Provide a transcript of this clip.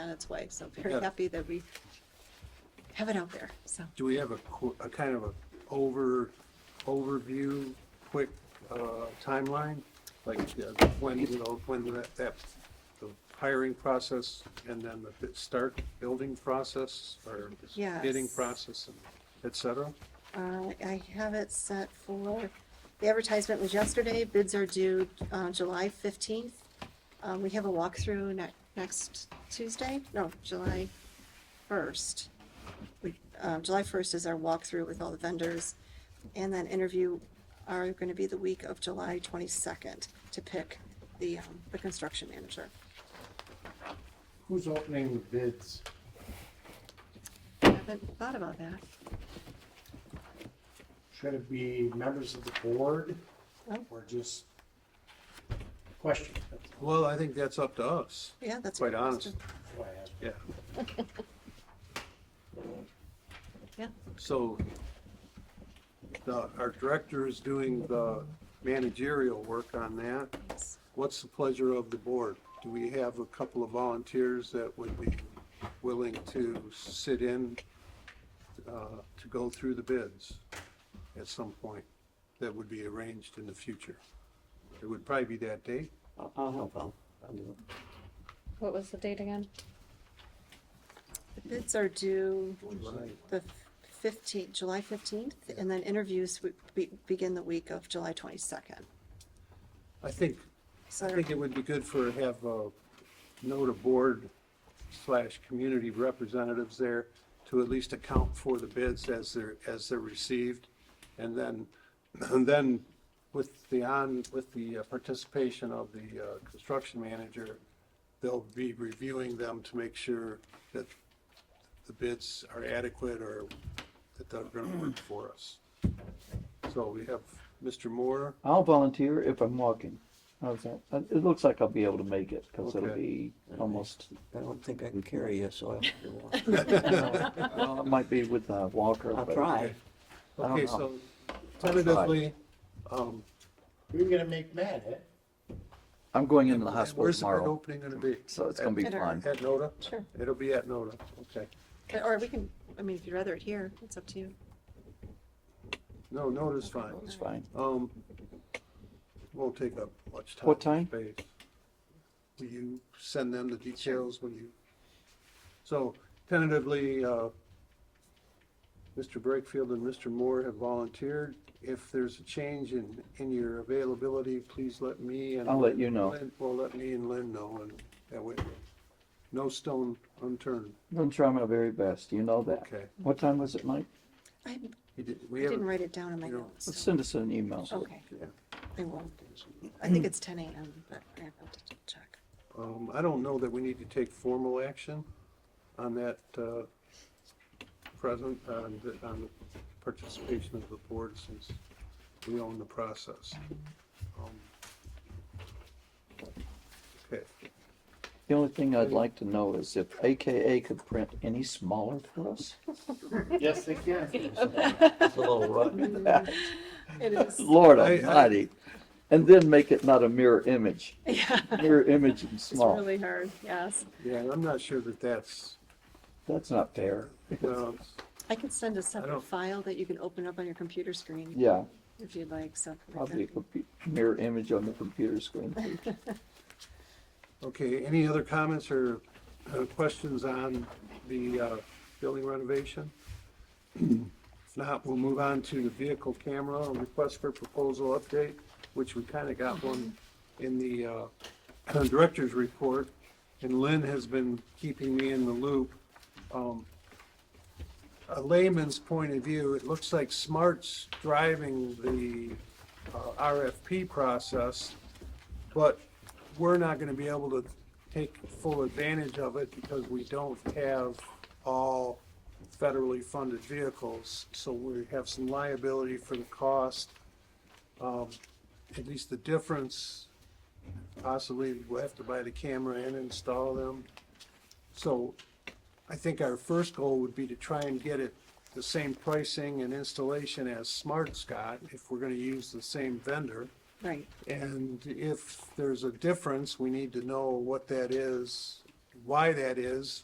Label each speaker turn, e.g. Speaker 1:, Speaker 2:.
Speaker 1: on its way. So very
Speaker 2: Yeah.
Speaker 1: happy that we have it out there. So
Speaker 2: Do we have a, qu- a kind of a over, overview, quick, uh, timeline? Like, uh, when, you know, when that, that, the hiring process and then the bit- start building process or
Speaker 1: Yes.
Speaker 2: bidding process and et cetera?
Speaker 1: uh, I have it set for, the advertisement was yesterday. Bids are due uh, July 15th. Um, We have a walkthrough ne- next Tuesday, no, July 1st. We- uh, July 1st is our walkthrough with all the vendors. And then interview are going to be the week of July 22nd to pick the, um, the construction manager.
Speaker 3: Who's opening the bids?
Speaker 1: I haven't thought about that.
Speaker 3: Should it be members of the board
Speaker 1: Oh.
Speaker 3: or just question? That's
Speaker 2: Well, I think that's up to us,
Speaker 1: Yeah, that's.
Speaker 2: quite
Speaker 1: a good
Speaker 2: honest,
Speaker 1: question.
Speaker 3: why I asked.
Speaker 2: yeah.
Speaker 1: Yeah.
Speaker 2: So the, our director is doing the managerial work on that.
Speaker 1: Yes.
Speaker 2: What's the pleasure of the board? Do we have a couple of volunteers that would be willing to sit in uh, to go through the bids at some point that would be arranged in the future? It would probably be that date.
Speaker 4: I'll, I'll help out. I'll do it.
Speaker 5: What was the date again?
Speaker 1: The bids are due
Speaker 2: Right.
Speaker 1: the fifteenth, July fifteenth, and then interviews would be, begin the week of July twenty-second.
Speaker 2: I think,
Speaker 1: So
Speaker 2: I think it would be good for, have uh note of board slash community representatives there to at least account for the bids as they're, as they're received. And then, and then with the on, with the uh, participation of the uh, construction manager, they'll be reviewing them to make sure that the bids are adequate or that they're gonna work for us. So we have Mr. Moore,
Speaker 6: I'll volunteer if I'm walking. How's that? Uh, It looks like I'll be able to make it because it'll
Speaker 2: Okay.
Speaker 6: be almost.
Speaker 4: I don't think I can carry you, so I'll have to walk.
Speaker 6: well, it might be with a walker.
Speaker 4: I'll
Speaker 6: but-
Speaker 4: try.
Speaker 6: I don't
Speaker 2: Okay,
Speaker 6: know.
Speaker 2: so tentatively, um.
Speaker 3: You're gonna make mad, eh?
Speaker 6: I'm going into the hospital
Speaker 2: Where's the bid
Speaker 6: tomorrow,
Speaker 2: opening gonna be?
Speaker 6: so it's going to be
Speaker 1: At
Speaker 6: fun.
Speaker 2: At NODA?
Speaker 1: Sure.
Speaker 2: It'll be at NODA, okay.
Speaker 1: Or we can, I mean, if you'd rather it here, it's up to you.
Speaker 2: No, NODA's fine.
Speaker 6: It's fine.
Speaker 2: Um, won't take up much time.
Speaker 6: What time?
Speaker 2: Space. Will you send them the details when you? So tentatively, uh, Mr. Breakfield and Mr. Moore have volunteered. If there's a change in, in your availability, please let me and.
Speaker 6: I'll let
Speaker 2: Lynn-
Speaker 6: you know.
Speaker 2: Lynn- Well, let me and Lynn know and that way, no stone unturned.
Speaker 6: I'm going to try my very best. You know that.
Speaker 2: Okay.
Speaker 6: What time was it, Mike?
Speaker 1: I
Speaker 2: He did-
Speaker 1: I
Speaker 2: We
Speaker 1: didn't
Speaker 2: haven't,
Speaker 1: write it down in my
Speaker 2: you know,
Speaker 6: Let's
Speaker 1: notes. so-
Speaker 6: send us an email.
Speaker 1: Okay,
Speaker 2: yeah.
Speaker 1: I will. I think it's ten AM, but I have to check.
Speaker 2: Um, I don't know that we need to take formal action on that, uh, present, uh, on the, on the participation of the board since we own the process. Um, Okay,
Speaker 6: The only thing I'd like to know is if AKA could print any smaller for us.
Speaker 3: Yes, they can.
Speaker 4: It's a little rough.
Speaker 1: It is.
Speaker 6: Lord
Speaker 2: I- I-
Speaker 6: Almighty. And then make it not a mirror image.
Speaker 1: Yeah,
Speaker 6: Mirror image and
Speaker 1: it's
Speaker 6: small.
Speaker 1: really hard, yes.
Speaker 2: yeah, and I'm not sure that that's, uh,
Speaker 6: That's not fair.
Speaker 2: well,
Speaker 1: I can send a
Speaker 2: don't-
Speaker 1: separate file that you can open up on your computer screen
Speaker 6: Yeah.
Speaker 1: if you'd like, so.
Speaker 6: Probably a compu- mirror image on the computer screen. please.
Speaker 2: okay, any other comments or uh, questions on the, uh, building renovation? If not, we'll move on to the vehicle camera, a request for proposal update, which we kind of got one in the uh, director's report. And Lynn has been keeping me in the loop. Um, A layman's point of view, it looks like Smart's driving the uh, RFP process, but we're not going to be able to take full advantage of it because we don't have all federally funded vehicles, so we have some liability for the cost. Um, At least the difference, possibly we'll have to buy the camera and install them. So I think our first goal would be to try and get it the same pricing and installation as Smart's got, if we're gonna use the same vendor.
Speaker 1: Right,
Speaker 2: And if there's a difference, we need to know what that is why that is,